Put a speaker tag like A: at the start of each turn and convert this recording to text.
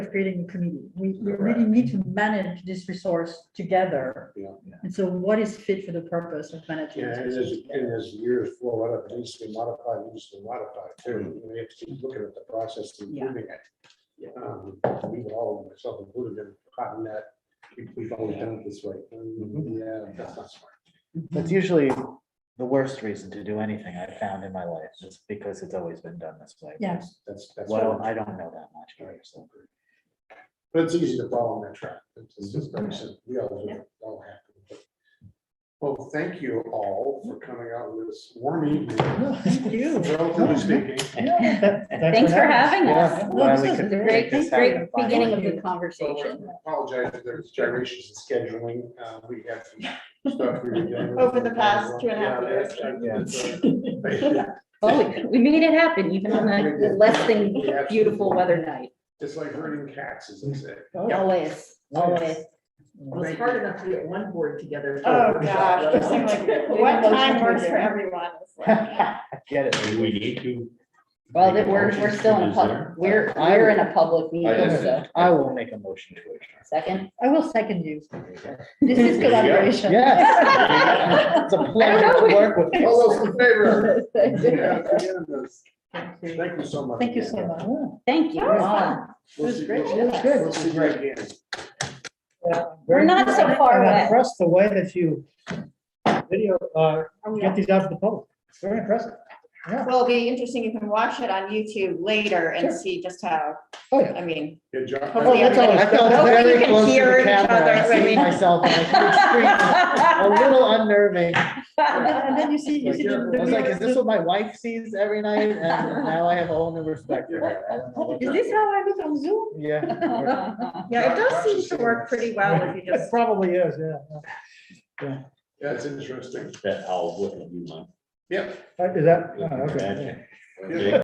A: creating a committee. We, we really
B: Correct.
A: need to manage this resource together.
B: Yeah.
A: And so what is fit for the purpose of managing?
B: Yeah,
A: this
B: and
A: resource
B: as, and
A: together?
B: as years flow out, it needs to be modified, it needs to be modified too.
C: Hmm.
B: We have to keep looking at the process and
A: Yeah.
B: moving it. Um, We were all, myself included, been caught in that, we- we've always done it this way.
C: Mm-hmm.
B: Um, Yeah, that's not smart.
C: That's usually the worst reason to do anything I've found in my life, just because it's always been done this way.
A: Yeah.
B: That's, that's.
C: Well, I don't know that much. about it, so.
B: But it's easy to follow on that track. It's it's
C: Mm-hmm.
B: just very simple. We all, do it. all have to. Well, thank you all for coming out with this warm evening.
A: Thank you.
B: Relatively speaking.
D: Thanks for having us.
C: Yeah, well, we
A: this is
C: could
D: The
C: make
D: great,
C: this
D: great
C: happen finally.
D: beginning of the
B: So
D: conversation.
B: I Apologize if there's gyrations in scheduling. Uh, we have some stuff. we were dealing with.
E: Over the past two and a half years.
B: Yeah.
D: Oh, we- we made it happen even on
B: We
D: a
B: did.
D: less than
B: We absolutely
D: beautiful
B: did.
D: weather night.
B: It's like herding cats, as they say.
D: Always, always.
F: Well, it's hard enough to get one board together.
E: Oh, gosh, it seems like what time works for everyone. It's like-
C: Get it.
G: Do we need to?
D: Well,
G: make
D: that
G: a
D: we're,
G: motion
D: we're
G: to
D: still in
G: this
D: public,
G: there?
D: we're, we're in a public meeting,
G: didn't.
D: so,
C: I will make a motion to adjourn.
D: second.
A: I will second you. This
D: There you
A: is
D: go.
A: collaboration.
C: Yes. It's a pleasure to work with.
B: All those in favor?
D: Thank
B: Yeah, it's unanimous.
A: Thank you.
B: Thank you so much.
A: Thank you so much.
D: you.
B: We'll
A: It was
B: see-
A: great.
B: we'll-
A: It was good.
B: We'll see you again.
D: We're not so far away.
H: Impressed the way that you video, uh, get these out to the public. It's very impressive.
E: Well, it'll be interesting. You can watch it on YouTube later and
H: Sure.
E: see just how,
H: Oh, yeah.
E: I mean,
B: Good job.
E: Hopefully
C: That's all. I felt
E: Hope we
C: very
E: can
C: close to
E: hear
C: the
E: each
C: camera.
E: other
C: I
E: when
C: see
E: we-
C: myself. and I feel extremely- A little unnerving.
A: And then you see, you see. the-
C: I was like, is this what my wife sees every night? And now I have a whole new respect for her. I don't know what
A: Is
C: that-
A: this how I look on Zoom?
C: Yeah.
E: yeah, it does seem to work pretty well if you
H: It
E: just,
H: probably is, yeah.
B: That's interesting.
G: That owl wouldn't do much.
B: Yep.
C: Uh,
H: Is that, oh, okay.
G: Imagine.
B: Yeah.
G: Big